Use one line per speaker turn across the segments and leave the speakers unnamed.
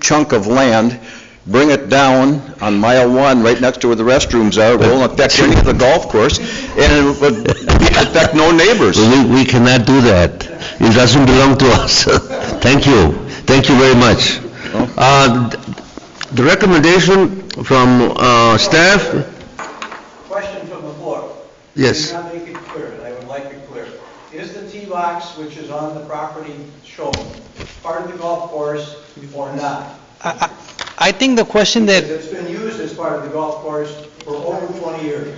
chunk of land, bring it down on mile one, right next to where the restrooms are, It won't affect any of the golf course, and it would affect no neighbors.
We we cannot do that. It doesn't belong to us. Thank you. Thank you very much. Uh, The recommendation from uh, staff,
Question from the floor.
yes,
I did not make it clear, and I would like it clear. Is the tee box, which is on the property shown, part of the golf course or not?
I I think the question that,
Because it's been used as part of the golf course for over 20 years.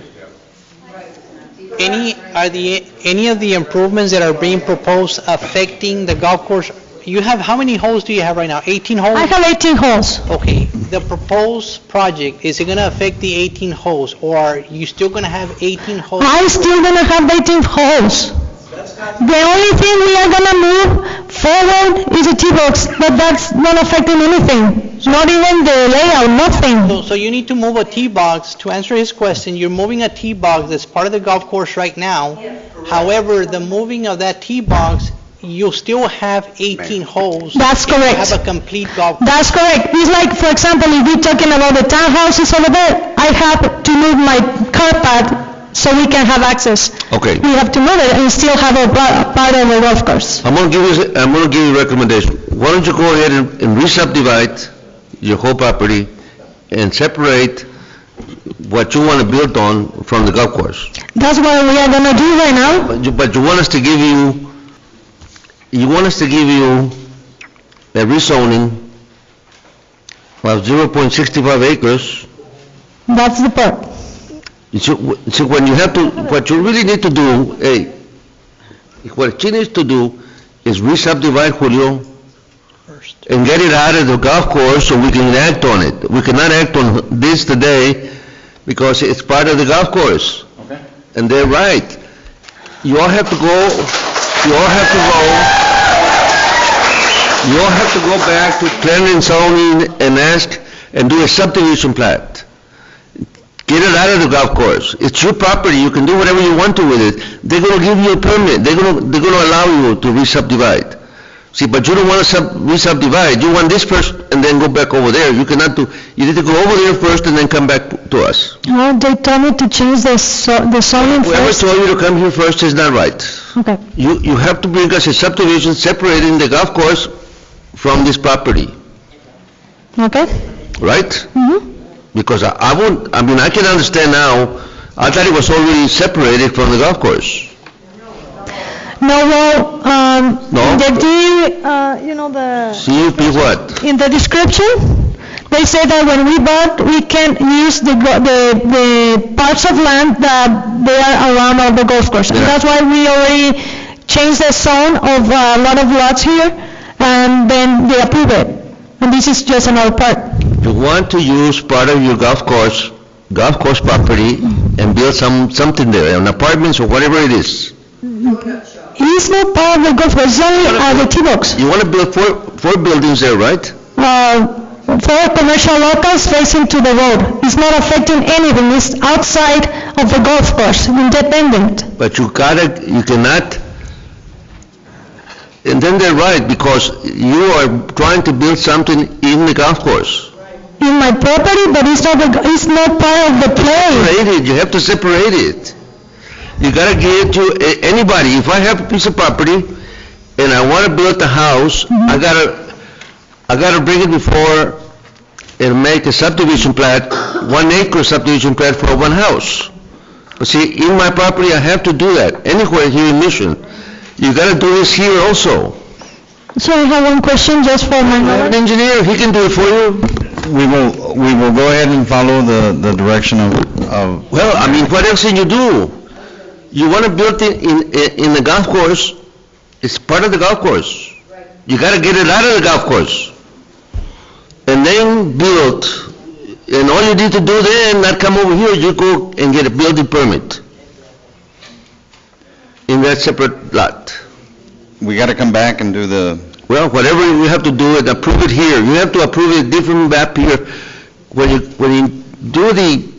any, are the, any of the improvements that are being proposed affecting the golf course? You have, how many holes do you have right now? 18
I
holes?
have 18 holes.
Okay, the proposed project, is it going to affect the 18 holes, or are you still going to have 18 holes?
I still gonna have 18 holes.
That's not,
The only thing we are gonna move forward is the T-box, but that's not affecting anything. Not even the layout,
So-
nothing.
So you need to move a tee box, to answer his question, you're moving a tee box that's part of the golf course right now. However, the moving of that tee box, you'll still have 18 holes.
That's
and you'll
correct.
Have a complete golf.
That's correct. It's like, for example, if we're talking about the townhouses over there, I have to move my car pad so we can have access.
okay.
We have to move it and still have a pa- part of the golf course.
I'm going to give you, I'm going to give you a recommendation. Why don't you go ahead and and re-subdivide your whole property and separate what you want to build on from the golf course?
That's what we are gonna do right now.
But you- but you want us to give you, you want us to give you a rezoning of 0.65 acres.
That's the part.
So so when you have to, what you really need to do, hey, what she needs to do is re-subdivide Julio
course.
and get it out of the golf course so we can act on it. We cannot act on this today because it's part of the golf course.
Okay.
And they're right. You all have to go, you all have to go, you all have to go back to planning and zoning and ask, and do a subdivision plat. Get it out of the golf course. It's your property, you can do whatever you want to with it. They're gonna give you a permit, they're gonna, they're gonna allow you to re-subdivide. See, but you don't wanna sub, re-subdivide, you want this first and then go back over there. You cannot do, you need to go over there first and then come back to us.
No, Oh, they told me to change the so- the zoning
Whoever
first.
told you to come here first is not right.
Okay,
You, you have to bring us a subdivision separating the golf course from this property,
okay?
right?
Mhm.
Because I, I won't, I mean, I can understand now, I thought it was already separated from the golf course.
No, well, um,
No.
in the, D, uh, you know, the,
CUP what?
in the description, they say that when we bought, we can use the, go- the, the parts of land that they are around of the golf course. And
Yeah.
that's why we already changed the zone of uh, a lot of lots here, and then they approve it. And this is just another part.
You want to use part of your golf course, golf course property and build some, something there, an apartments or whatever it is.
It's not part of the golf course, it's only uh, the tee box.
You want to build four, four buildings there, right?
uh, for commercial locals facing to the road. It's not affecting anything, it's outside of the golf course, independent.
But you gotta, you cannot, and then they're right, because you are trying to build something in the golf course.
In my property, but it's not, the- it's not part of the play.
Separate it, you have to separate it. You gotta give it to a- anybody, if I have a piece of property and I wanna build a house, I gotta, I gotta bring it before and make a subdivision plat, one acre subdivision plat for one house. But see, in my property, I have to do that, anywhere here in Mission. You gotta do this here also.
So I have one question just for my
I have an
knowledge.
engineer, he can do it for you.
We will, we will go ahead and follow the, the direction of, of,
Well, I mean, what else can you do? You want to build it in, in the golf course, it's part of the golf course. You got to get it out of the golf course. And then build, and all you need to do then, not come over here, you go and get a building permit in that separate lot.
we got to come back and do the,
Well, whatever you have to do, and approve it here. You have to approve it different map here. When you, when you do the,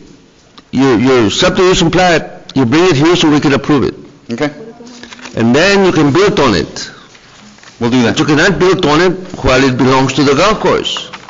your, your subdivision plat, you bring it here so we can approve it.
okay,
And then you can build on it.
we'll do
But you
that.
cannot build on it while it belongs to the golf course.